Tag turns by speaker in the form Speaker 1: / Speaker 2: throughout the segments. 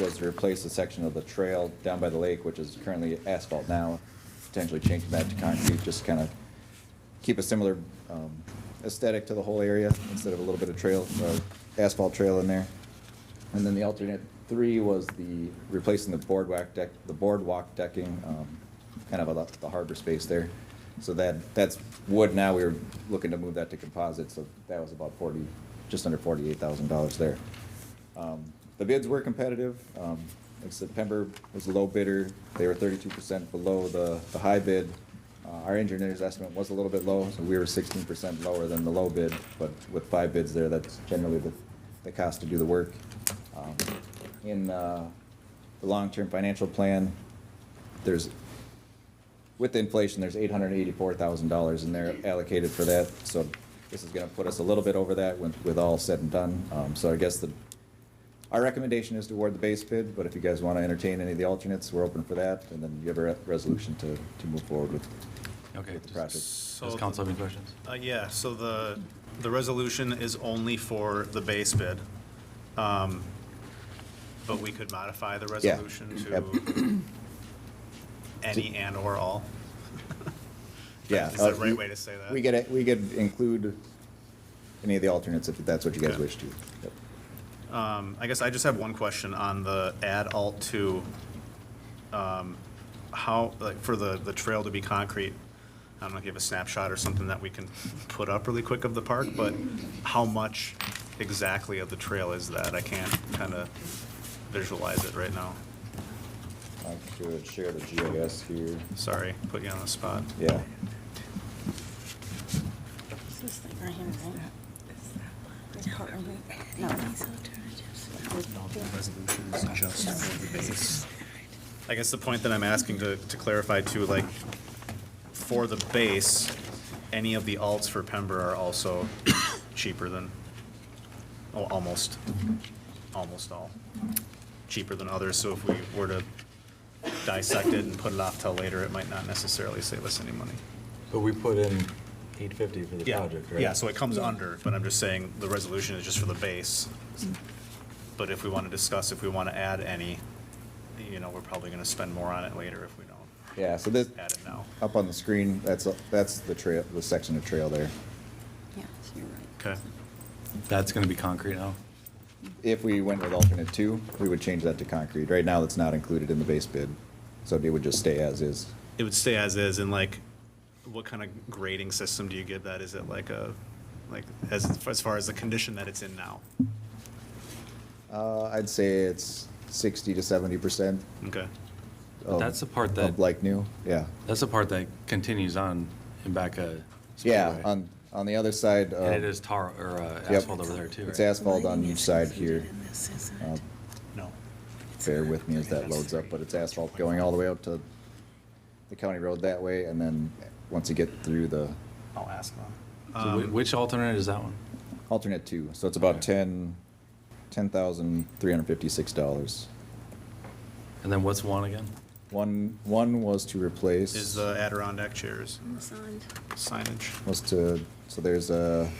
Speaker 1: was to replace a section of the trail down by the lake, which is currently asphalt now, potentially changing that to concrete, just kind of keep a similar um, aesthetic to the whole area instead of a little bit of trail, uh, asphalt trail in there. And then the alternate three was the, replacing the boardwalk deck, the boardwalk decking, um, kind of about the harbor space there. So that, that's wood now, we were looking to move that to composite, so that was about forty, just under forty-eight thousand dollars there. Um, The bids were competitive. Um, like September was the low bidder. They were thirty-two percent below the, the high bid. Uh, Our engineer's estimate was a little bit low, so we were sixteen percent lower than the low bid, but with five bids there, that's generally the, the cost to do the work. Um, In, uh, the long-term financial plan, there's with the inflation, there's eight hundred and eighty-four thousand dollars in there allocated for that, so this is gonna put us a little bit over that when, with all said and done. Um, so I guess the, our recommendation is to award the base bid, but if you guys wanna entertain any of the alternates, we're open for that, and then you have a re- resolution to, to move forward with.
Speaker 2: Okay.
Speaker 1: With the project.
Speaker 2: Does
Speaker 3: So-
Speaker 2: council have any questions?
Speaker 3: Uh, yeah, so the, the resolution is only for the base bid. Um, But we could modify the
Speaker 1: Yeah,
Speaker 3: resolution
Speaker 1: yep.
Speaker 3: to any and/or all.
Speaker 1: Yeah.
Speaker 3: Is that
Speaker 1: uh,
Speaker 3: the right
Speaker 1: we-
Speaker 3: way to say that?
Speaker 1: We could, we could include any of the alternates if that's what you guys
Speaker 3: Okay.
Speaker 1: wish to. Yep.
Speaker 3: Um, I guess I just have one question on the add alt two. Um, How, like, for the, the trail to be concrete, I don't know if you have a snapshot or something that we can put up really quick of the park, but how much exactly of the trail is that? I can't kind of visualize it right now.
Speaker 1: I could share the GIS here.
Speaker 3: Sorry, put you on the spot.
Speaker 1: Yeah.
Speaker 4: It's this thing right here, right? It's called- No.
Speaker 3: I guess the point that I'm asking to, to clarify too, like, for the base, any of the alts for Pember are also cheaper than, oh, almost, almost all, cheaper than others, so if we were to dissect it and put it off till later, it might not necessarily save us any money.
Speaker 2: But we put in eight fifty for the
Speaker 3: Yeah,
Speaker 2: project, right?
Speaker 3: yeah, so it comes under, but I'm just saying, the resolution is just for the base. But if we want to discuss, if we want to add any, you know, we're probably going to spend more on it later if we don't
Speaker 1: Yeah, so this,
Speaker 3: add it now.
Speaker 1: Up on the screen, that's, that's the trail, the section of trail there.
Speaker 4: Yeah, so you're right.
Speaker 3: Okay.
Speaker 2: That's gonna be concrete now?
Speaker 1: If we went with alternate two, we would change that to concrete. Right now, that's not included in the base bid, so it would just stay as is.
Speaker 3: It would stay as is, and like, what kind of grading system do you give that? Is it like a, like, as, as far as the condition that it's in now?
Speaker 1: Uh, I'd say it's sixty to seventy percent
Speaker 3: Okay.
Speaker 1: of.
Speaker 2: That's the part
Speaker 1: Of
Speaker 2: that-
Speaker 1: like new, yeah.
Speaker 2: That's the part that continues on Embecca.
Speaker 1: Yeah,
Speaker 2: Speedway.
Speaker 1: on, on the other side.
Speaker 2: And it
Speaker 1: uh,
Speaker 2: is tar, or uh,
Speaker 1: Yep.
Speaker 2: asphalt over there too,
Speaker 1: It's
Speaker 2: right?
Speaker 1: asphalt on each side here.
Speaker 4: This isn't.
Speaker 1: Uh,
Speaker 3: No.
Speaker 1: Bear with me as that loads up, but it's asphalt going all the way up to the county road that way, and then once you get through the
Speaker 3: I'll ask them.
Speaker 2: So
Speaker 3: Um,
Speaker 2: whi- Which alternate is that one?
Speaker 1: Alternate two, so it's about ten, ten thousand three hundred fifty-six dollars.
Speaker 2: And then what's one again?
Speaker 1: One, one was to replace.
Speaker 3: Is
Speaker 2: uh,
Speaker 3: the Adirondack chairs
Speaker 4: It's on.
Speaker 3: signage?
Speaker 1: Was to, so there's a,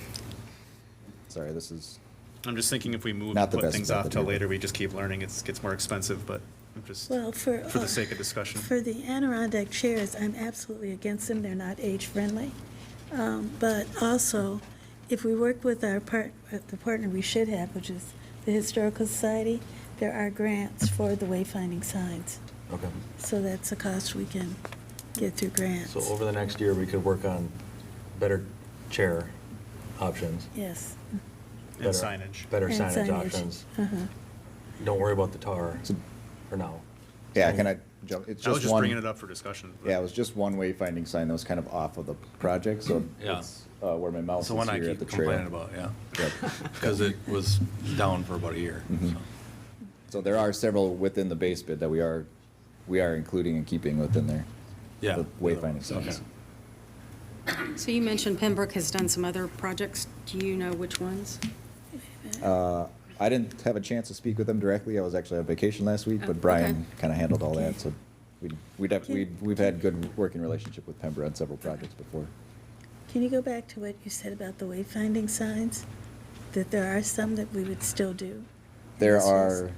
Speaker 1: sorry, this is,
Speaker 3: I'm just thinking if we move,
Speaker 1: Not
Speaker 3: and
Speaker 1: the
Speaker 3: put
Speaker 1: best
Speaker 3: things
Speaker 1: method
Speaker 3: off till
Speaker 1: either.
Speaker 3: later, we just keep learning, it's, gets more expensive, but I'm just,
Speaker 5: Well, for.
Speaker 3: for
Speaker 5: uh,
Speaker 3: the sake of discussion.
Speaker 5: For the Adirondack chairs, I'm absolutely against them. They're not age-friendly. Um, But also, if we work with our part, with the partner we should have, which is the Historical Society, there are grants for the wayfinding signs.
Speaker 6: Okay.
Speaker 5: So that's a cost we can get through grants.
Speaker 6: So over the next year, we could work on better chair options.
Speaker 5: Yes.
Speaker 3: And
Speaker 6: better-
Speaker 3: signage.
Speaker 6: Better
Speaker 5: And
Speaker 6: signage options.
Speaker 5: Uh-huh.
Speaker 6: Don't worry about the tar
Speaker 1: So-
Speaker 6: for now.
Speaker 1: yeah, can I jump, it's
Speaker 3: I was
Speaker 1: just
Speaker 3: just
Speaker 1: one.
Speaker 3: bringing it up for discussion. but-
Speaker 1: Yeah, it was just one wayfinding sign that was kind of off of the project, so
Speaker 2: Yeah.
Speaker 1: it's, uh, where my mouse
Speaker 2: That's
Speaker 1: is
Speaker 2: the one I
Speaker 1: here at the
Speaker 2: keep
Speaker 1: trail.
Speaker 2: complaining about, yeah.
Speaker 1: Yep.
Speaker 2: Because it was down for about a year,
Speaker 1: Mhm.
Speaker 2: so.
Speaker 1: So there are several within the base bid that we are, we are including and keeping within there.
Speaker 2: Yeah.
Speaker 1: The Wayfinding signs.
Speaker 2: Okay.
Speaker 7: So you mentioned Pembroke has done some other projects. Do you know which ones?
Speaker 1: Uh, I didn't have a chance to speak with them directly. I was actually on vacation last week,
Speaker 7: Oh,
Speaker 1: but
Speaker 7: okay.
Speaker 1: Brian kind of handled all that, so we'd, we'd, have-
Speaker 5: Okay.
Speaker 1: we'd- we've had good working relationship with Pembroke on several projects before.
Speaker 5: Can you go back to what you said about the wayfinding signs? That there are some that we would still do?
Speaker 1: There
Speaker 5: This was-
Speaker 1: are